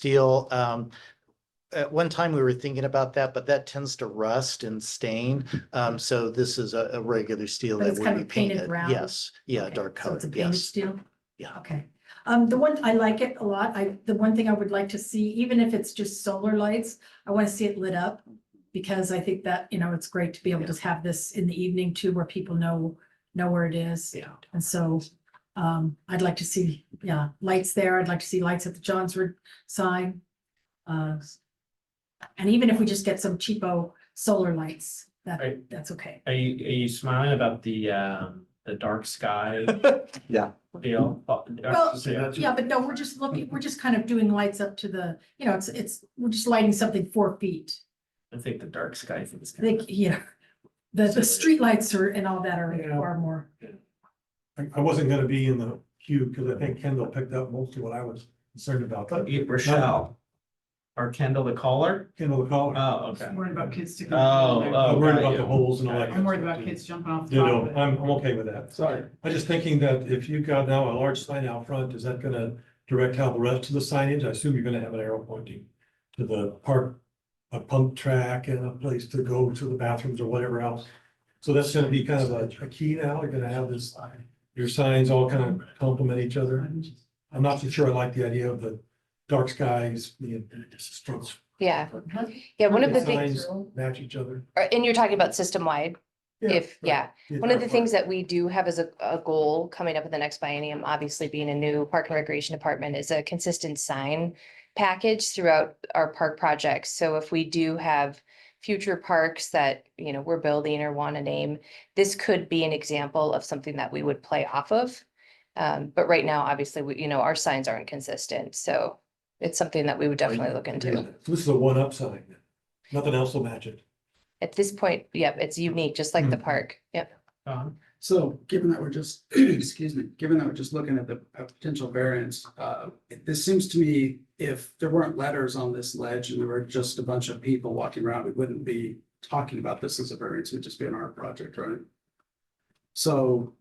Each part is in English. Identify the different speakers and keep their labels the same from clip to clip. Speaker 1: steel. Um, at one time we were thinking about that, but that tends to rust and stain. Um, so this is a, a regular steel
Speaker 2: But
Speaker 1: that
Speaker 2: it's
Speaker 1: would
Speaker 2: kind
Speaker 1: be
Speaker 2: of painted
Speaker 1: painted.
Speaker 2: brown?
Speaker 1: Yes, yeah,
Speaker 2: Okay,
Speaker 1: dark
Speaker 2: so it's a
Speaker 1: color,
Speaker 2: painted
Speaker 1: yes.
Speaker 2: Steel?
Speaker 1: Yeah.
Speaker 2: Okay. Um, the one, I like it a lot. I, the one thing I would like to see, even if it's just solar lights, I want to see it lit up. Because I think that, you know, it's great to be able to have this in the evening too, where people know, know where it is.
Speaker 1: Yeah.
Speaker 2: And so, um, I'd like to see, yeah, lights there. I'd like to see lights at the Johnswood sign. Uh, and even if we just get some cheapo solar lights, that,
Speaker 3: Right.
Speaker 2: that's okay.
Speaker 3: Are you, are you smiling about the, um, the dark sky
Speaker 4: Yeah.
Speaker 3: deal? Oh,
Speaker 2: Well,
Speaker 3: so that's-
Speaker 2: Yeah, but no, we're just looking, we're just kind of doing lights up to the, you know, it's, it's, we're just lighting something four feet.
Speaker 3: I think the dark sky thing is.
Speaker 2: I
Speaker 3: kind
Speaker 2: think,
Speaker 3: of-
Speaker 2: yeah. The, the
Speaker 3: Silly.
Speaker 2: streetlights are, and all that are,
Speaker 5: Yeah.
Speaker 2: are more,
Speaker 5: I, I wasn't gonna be in the queue, because I think Kendall picked up most of what I was concerned about, but
Speaker 3: Yeah, Rochelle. Or Kendall the caller?
Speaker 5: Kendall
Speaker 3: Oh,
Speaker 5: called,
Speaker 3: okay.
Speaker 6: Worried about kids sticking.
Speaker 3: Oh,
Speaker 5: I'm worried
Speaker 3: got
Speaker 5: about the
Speaker 3: you.
Speaker 5: holes and all that.
Speaker 6: I'm worried about kids jumping off the
Speaker 5: No,
Speaker 6: top
Speaker 5: no,
Speaker 6: of it.
Speaker 5: I'm, I'm okay with that.
Speaker 3: Sorry.
Speaker 5: I'm just thinking that if you've got now a large sign out front, is that gonna direct how the rest of the signage, I assume you're gonna have an arrow pointing to the park, a pump track and a place to go to the bathrooms or whatever else. So that's gonna be kind of a, a key now, you're gonna have this, your signs all kind of complement each other. I'm not so sure I like the idea of the dark skies, the struggle.
Speaker 7: Yeah, yeah, one of the things,
Speaker 5: Signs match each other.
Speaker 7: or- and you're talking about system-wide, if, yeah. One of the things that we do have as a, a goal coming up in the next biennium, obviously being a new park and recreation department, is a consistent sign package throughout our park projects. So if we do have future parks that, you know, we're building or want to name, this could be an example of something that we would play off of. Um, but right now, obviously, we, you know, our signs aren't consistent, so it's something that we would definitely look into.
Speaker 5: So This is a one-up sign, nothing else will match it.
Speaker 7: At this point, yep, it's unique, just like the park, yep.
Speaker 3: Um,
Speaker 8: So given that we're just, excuse me, given that we're just looking at the p- potential variance, uh, it- this seems to me if there weren't letters on this ledge and there were just a bunch of people walking around, we wouldn't be talking about this as a variance, it would just be an art project, right? So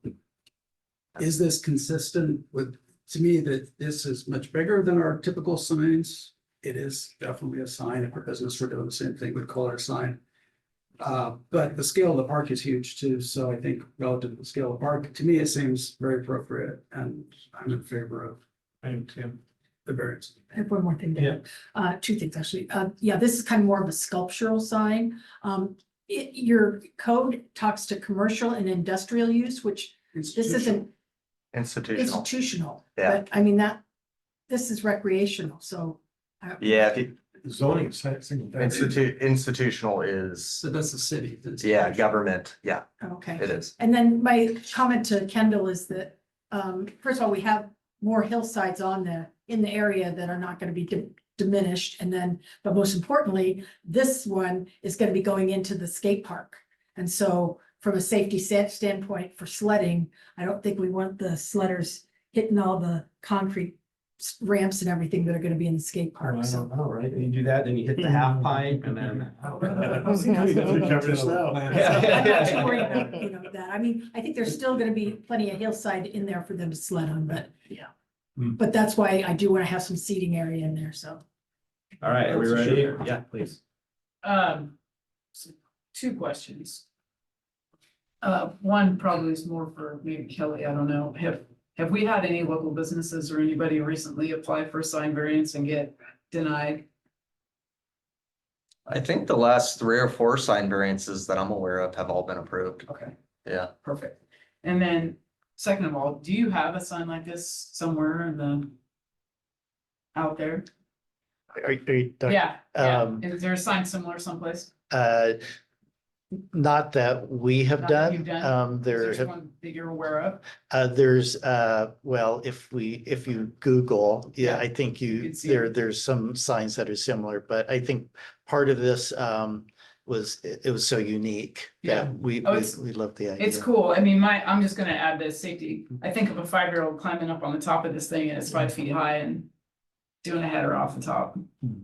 Speaker 8: is this consistent with, to me, that this is much bigger than our typical signs? It is definitely a sign. If our business were doing the same thing, we'd call it a sign. Uh, but the scale of the park is huge too, so I think relative to the scale of the park, to me, it seems very appropriate and I'm in favor of
Speaker 3: I am too.
Speaker 8: the variance.
Speaker 2: I have one more thing to
Speaker 3: Yeah.
Speaker 2: add. Uh, two things actually. Uh, yeah, this is kind of more of a sculptural sign. Um, it, your code talks to commercial and industrial use, which this isn't
Speaker 9: Institutional.
Speaker 2: institutional.
Speaker 9: Yeah.
Speaker 2: But I mean, that, this is recreational, so. uh, I-
Speaker 9: Yeah, if you,
Speaker 5: zoning is si- single family.
Speaker 9: institute, institutional is,
Speaker 8: So that's the city. that's-
Speaker 9: yeah, government, yeah,
Speaker 2: Okay.
Speaker 9: it is.
Speaker 2: And then my comment to Kendall is that, um, first of all, we have more hillsides on the, in the area that are not gonna be di- diminished. And then, but most importantly, this one is gonna be going into the skate park. And so from a safety sa- standpoint for sledding, I don't think we want the sledders hitting all the concrete s- ramps and everything that are gonna be in the skate
Speaker 3: I
Speaker 2: park, so.
Speaker 3: don't know, right? You do that, then you hit the half pipe and then.
Speaker 2: I'm
Speaker 3: Yeah.
Speaker 5: Yeah.
Speaker 2: not too worried about, you know, that. I mean, I think there's still gonna be plenty of hillside in there for them to sled on, but.
Speaker 1: Yeah.
Speaker 5: Hmm.
Speaker 2: But that's why I do wanna have some seating area in there, so.
Speaker 3: All right, are we ready? Yeah, please.
Speaker 6: Um, so two questions. Uh, one probably is more for maybe Kelly, I don't know. Have, have we had any local businesses or anybody recently apply for sign variance and get denied?
Speaker 9: I think the last three or four sign variances that I'm aware of have all been approved,
Speaker 6: Okay,
Speaker 9: yeah.
Speaker 6: perfect. And then, second of all, do you have a sign like this somewhere in the out there?
Speaker 1: Are, you- are you, talking-
Speaker 6: Yeah, yeah.
Speaker 1: um,
Speaker 6: Is there a sign similar someplace?
Speaker 1: uh, not that we have
Speaker 6: Not that you've
Speaker 1: done,
Speaker 6: done?
Speaker 1: um,
Speaker 6: Is
Speaker 1: there have
Speaker 6: one That you're aware of?
Speaker 1: Uh, there's, uh, well, if we, if you Google, yeah,
Speaker 6: Yeah,
Speaker 1: I think you,
Speaker 6: you'd see
Speaker 1: there,
Speaker 6: it.
Speaker 1: there's some signs that are similar, but I think part of this, um, was, it it was so unique
Speaker 6: Yeah.
Speaker 1: that we,
Speaker 6: Oh,
Speaker 1: we
Speaker 6: it's-
Speaker 1: we love the idea.
Speaker 6: It's cool. I mean, my, I'm just gonna add the safety. I think of a five-year-old climbing up on the top of this thing and it's five
Speaker 1: Mm-hmm.
Speaker 6: feet high and doing a header off the top.
Speaker 1: Hmm.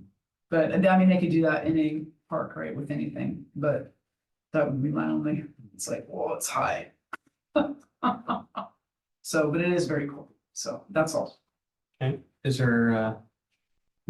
Speaker 6: But I mean, they could do that in any park, right, with anything, but that would be my only, it's like, whoa, it's high. So, but it is very cool. So that's all.
Speaker 3: Is there, uh,